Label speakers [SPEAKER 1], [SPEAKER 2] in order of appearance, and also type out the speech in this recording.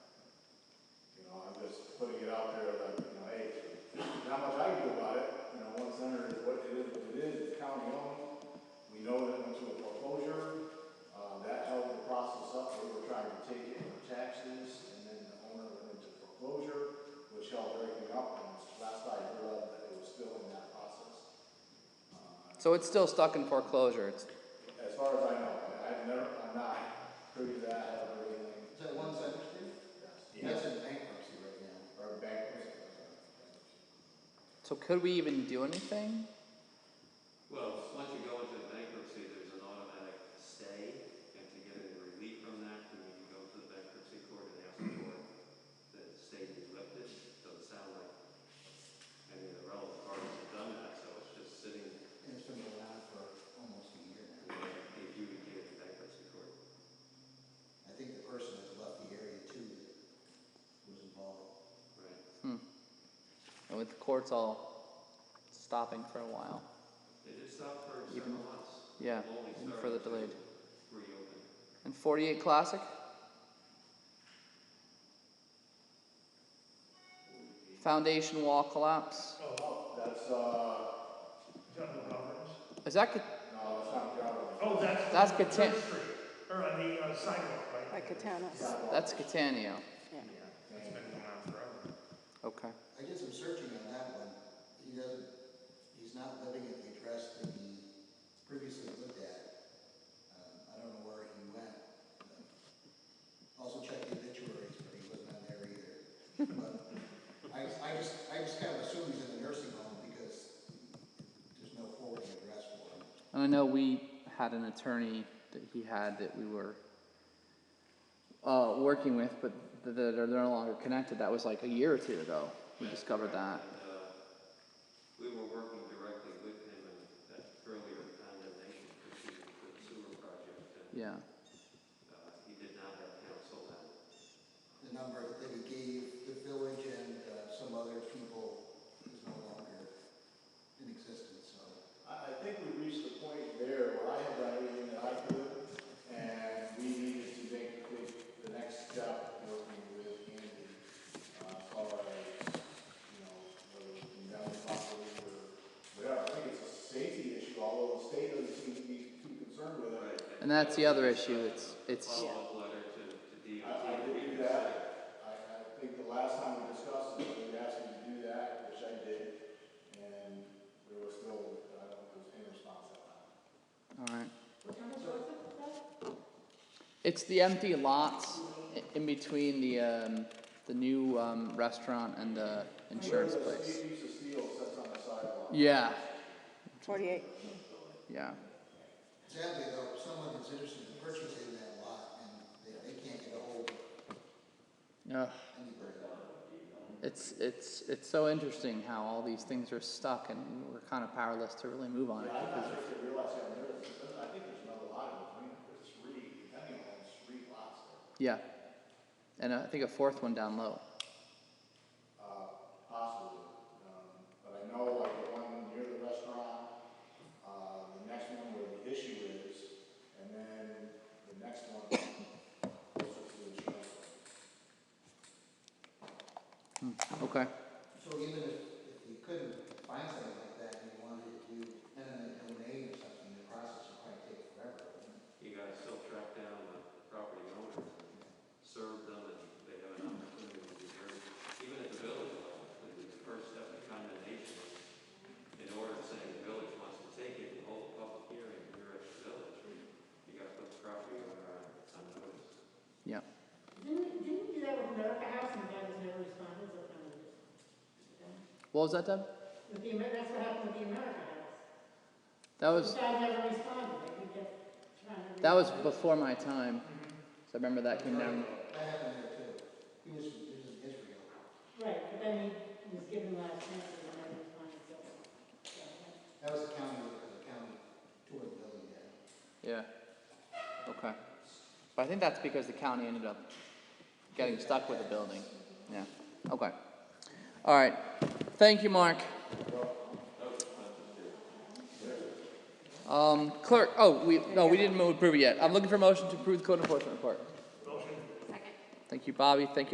[SPEAKER 1] uh,
[SPEAKER 2] So it's still stuck in foreclosure. It's,
[SPEAKER 1] As far as I know, I've never, I'm not privy to that or anything,
[SPEAKER 3] Is that one Center Street? That's in bankruptcy right now.
[SPEAKER 1] or bankruptcy.
[SPEAKER 2] so could we even do anything?
[SPEAKER 4] Well, once you go into bankruptcy, there's an automatic stay, and to get any relief from that, you need to go to the bankruptcy court and ask for the stay to be lifted. Doesn't sound like any of the relevant parties have done that, so it's just sitting,
[SPEAKER 3] It's been around for almost a year now.
[SPEAKER 4] if you would get in bankruptcy court.
[SPEAKER 3] I think the person has left the area too that was involved.
[SPEAKER 4] Right.
[SPEAKER 2] And with the courts all stopping for a while.
[SPEAKER 4] They did stop for several months.
[SPEAKER 2] Yeah,
[SPEAKER 4] Only
[SPEAKER 2] and
[SPEAKER 4] started
[SPEAKER 2] further
[SPEAKER 4] to
[SPEAKER 2] delayed.
[SPEAKER 4] Reopen.
[SPEAKER 2] And 48 Classic? Foundation wall collapse.
[SPEAKER 1] Oh, that's, uh,
[SPEAKER 5] General Roberts.
[SPEAKER 2] Is that co-
[SPEAKER 1] no, that's not Galvin.
[SPEAKER 5] Oh, that's.
[SPEAKER 2] That's
[SPEAKER 5] on
[SPEAKER 2] Catan-
[SPEAKER 5] Church Street, Or on the uh, sidewalk, right?
[SPEAKER 6] Like Catana's.
[SPEAKER 2] that's Catania?
[SPEAKER 5] It's been going on forever.
[SPEAKER 2] Okay.
[SPEAKER 3] I did some searching on that one. He doesn't, he's not living at the address that he previously lived at. Um, I don't know where he went. Um, Also checked the obituaries, but he wasn't on there either. But I, I just, I just kind of assume he's in the nursing home because there's no forwarding address for him.
[SPEAKER 2] And I know we had an attorney that he had that we were uh, working with, but th- that are no longer connected. That was like a year or two ago. We discovered that.
[SPEAKER 4] And, uh, we were working directly with him in that earlier condemnation proceeding for the sewer project, and,
[SPEAKER 2] Yeah.
[SPEAKER 4] uh, he did not have counsel then.
[SPEAKER 3] The number that he gave the village and uh, some other people is no longer in existence, so.
[SPEAKER 1] I, I think we reached the point there where I had done everything that I could, and we needed to make the, the next step, working with Andy, uh, far as, you know, whether it's condemned properly or whatever. I think it's a safety issue, although the state doesn't seem to be too concerned with it.
[SPEAKER 2] And that's the other issue. It's it's
[SPEAKER 4] Follow-up letter to, to DOT.
[SPEAKER 1] I, I did do that, I, I think the last time we discussed it, they asked me to do that, which I did, and there was still, I don't think there was any response at that time.
[SPEAKER 2] all right. It's the empty lots i- in between the um, the new um, restaurant and the insurance place.
[SPEAKER 1] Piece of steel sits on the sidewalk.
[SPEAKER 2] Yeah.
[SPEAKER 6] Forty-eight.
[SPEAKER 2] Yeah.
[SPEAKER 3] Sadly, though, someone that's interested in purchasing that lot, and they, they can't get a hold of
[SPEAKER 2] Ugh.
[SPEAKER 3] anybody.
[SPEAKER 2] It's it's it's so interesting how all these things are stuck and we're kind of powerless to really move on it.
[SPEAKER 1] I'm not sure if they realize how many, I think there's another lot in between, there's three, depending on three lots there.
[SPEAKER 2] Yeah, and uh, I think a fourth one down low.
[SPEAKER 1] uh, possibly. Um, But I know like the one near the restaurant, uh, the next one where the issue is, and then the next one closer to the insurance.
[SPEAKER 2] Okay.
[SPEAKER 3] So even if, if you couldn't find something like that, and you wanted to do eminent domain or something, the process would probably take forever. wouldn't it?
[SPEAKER 4] You gotta still track down the property owners, and serve them, and they have an opportunity to be heard. Even at the village level, the the first step in condemnation is, in order to say the village wants to take it and hold a public hearing here at the village, you gotta put the property owner on, on notice.
[SPEAKER 2] Yeah.
[SPEAKER 7] Didn't, didn't you do that with America House and that was never responded, so kind of just.
[SPEAKER 2] What was that, Deb?
[SPEAKER 7] With the, Amer- that's what happened with the America House.
[SPEAKER 2] That was
[SPEAKER 7] The guy never responded, like he kept trying to.
[SPEAKER 2] that was before my time. So I remember that came down.
[SPEAKER 3] That happened there too. He was, he was in Israel.
[SPEAKER 7] Right, but then he was given last chance and he never responded, so. so, yeah.
[SPEAKER 3] That was the county, the county toured the building there.
[SPEAKER 2] Yeah. Okay. But I think that's because the county ended up getting stuck with the building. Yeah. Okay. All right. Thank you, Mark. Um, clerk. Oh, we no, we didn't move approve it yet. I'm looking for a motion to approve the code enforcement report. Motion. Second. Thank you, Bobby. Thank you.